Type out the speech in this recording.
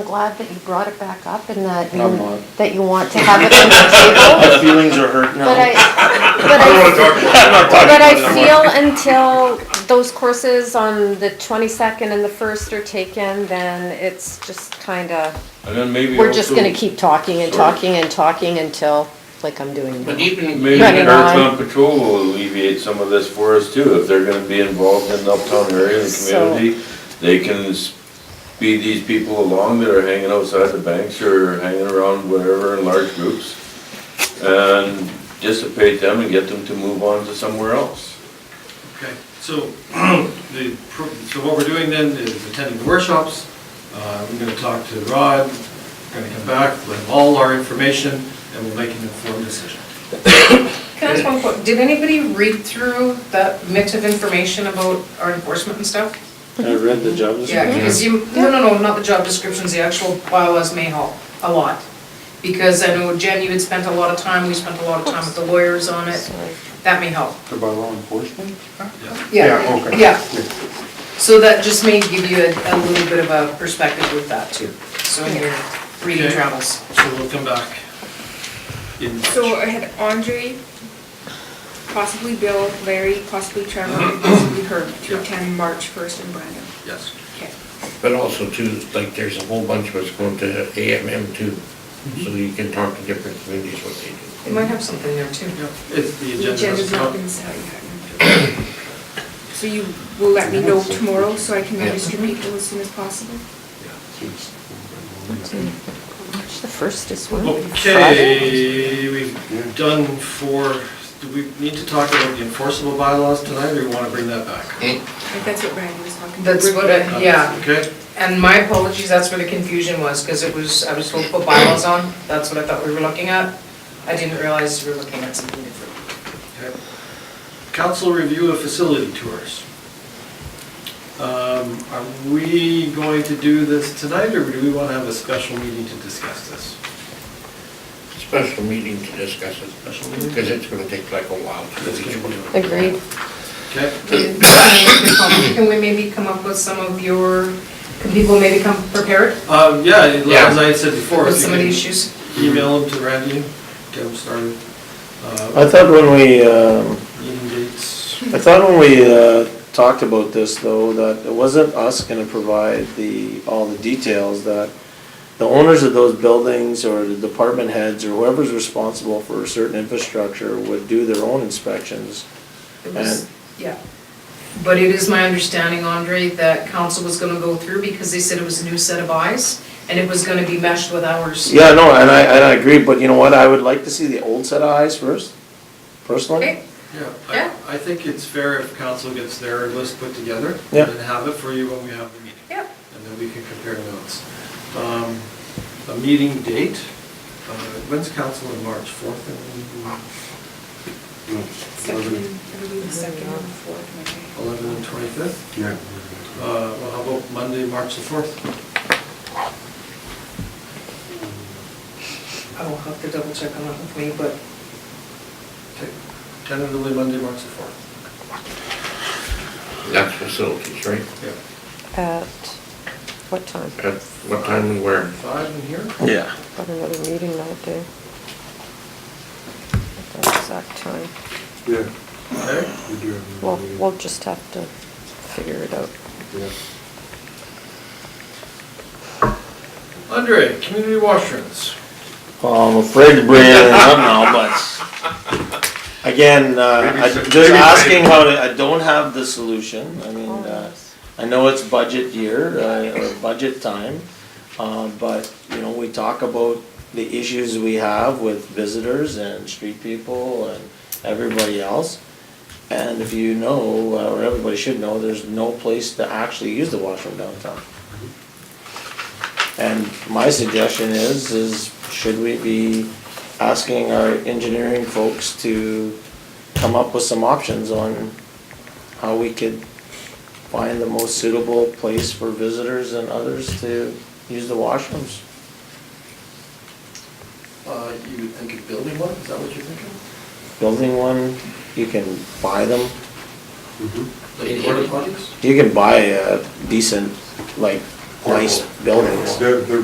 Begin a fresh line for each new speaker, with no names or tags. glad that you brought it back up and that
I'm
you,
not.
that you want to have it on the table.
My feelings are hurt now.
But I, but
I don't wanna
I,
talk about it. I'm not talking
but
about it
I
anymore.
feel until those courses on the twenty-second and the first are taken, then it's just kinda,
And then maybe
we're just
also-
gonna keep talking and
Sorry.
talking and talking until, like I'm doing
But
now.
even,
Maybe
Running
Earth
on.
Mountain Patrol will alleviate some of this for us too, if they're gonna be involved in the uptown area and the
So-
community. They can speed these people along that are hanging outside the banks or hanging around wherever in large groups. And dissipate them and get them to move on to somewhere else.
Okay, so, the, pro- so what we're doing then is attending the workshops, uh, we're gonna talk to Rod, we're gonna come back, we'll have all our information, and we'll make an informed decision.
Can I ask one question? Did anybody read through that mix of information about our enforcement and stuff?
I read the job
Yeah,
description.
because you, no, no, no, not the job descriptions, the actual bylaws may help a lot. Because I know Jen, you had spent a lot of time, we spent a lot of time with the lawyers on it,
Sorry.
that may help.
The bylaw enforcement?
Yeah.
Yeah,
okay.
yeah. So that just may give you a, a little bit of a perspective with that too, so in your reading
Okay.
travels.
So we'll come back in
So
March.
I had Andre, possibly Bill, Larry, possibly Trevor, and possibly Herb to
Mm-hmm. Yeah.
attend March first in Brandon.
Yes.
Okay.
but also too, like there's a whole bunch of us going to AMM too, so you can talk to different communities what they do.
They might have something there too.
Yeah, It's the
The
agenda. hasn't
agenda's not
come.
been set yet. So you will let me know tomorrow so I can
Yeah.
register people as soon as possible?
March the first is when? Friday?
Okay, we've done for, do we need to talk about the enforceable bylaws tonight, or you wanna bring that back?
Like that's what Brandon was talking about.
That's what, I- yeah.
Okay,
And my apologies, that's where the confusion was, because it was, I was told to put bylaws on, that's what I thought we were looking at. I didn't realize we were looking at something different.
okay. Council review of facility tours. Um, are we going to do this tonight, or do we wanna have a special meeting to discuss this?
Special meeting to discuss it, because it's gonna take like a while to do each one.
Agreed.
Okay,
Can we maybe come up with some of your, can people maybe come prepared
um, yeah, as I had said before,
with
if you
some of the
can
issues?
email them to Randy, get them started. Uh,
I thought when we, um,
Meeting dates,
I thought when we, uh, talked about this though, that it wasn't us gonna provide the, all the details, that the owners of those buildings or the department heads or whoever's responsible for certain infrastructure would do their own inspections.
It was- Yeah. But it is my understanding, Andre, that council was gonna go through, because they said it was a new set of eyes, and it was gonna be meshed with ours.
Yeah, no, and I, and I agree, but you know what, I would like to see the old set of eyes first, personally.
Okay,
yeah.
Yeah.
I, I think it's fair if council gets their list put together.
Yeah.
And have it for you when we have the meeting.
yeah.
And then we can compare notes. Um, A meeting date, uh, when's council in March, 4th? and
Second, I believe the second or fourth,
11th and 25th?
Yeah.
Uh, Well, how about Monday, March the 4th?
I will have to double check on that with me, but
Okay, Tentatively Monday, March the 4th.
That's facilities, right?
Yeah.
At what time?
At what time and where?
Five in here?
Yeah.
Got another meeting that day. At that exact time.
Yeah,
Okay.
we do have.
Well, we'll just have to figure it out.
Yeah.
Andre, community washrooms.
Well, I'm afraid to bring it up now, but again, uh, I- just asking how to, I don't have the solution. I mean,
Oh,
uh, I know it's budget year, uh, or budget time, uh, but, you know, we talk about the issues we have with visitors and street people and everybody else. And if you know, uh, or everybody should know, there's no place to actually use the washroom downtown. And my suggestion is, is should we be asking our engineering folks to come up with some options on how we could find the most suitable place for visitors and others to use the washrooms?
Uh, You would think of building one, is that what you're thinking?
Building one, you can buy them,
Like porta potties?
you can buy a decent, like, nice buildings.
They're, they're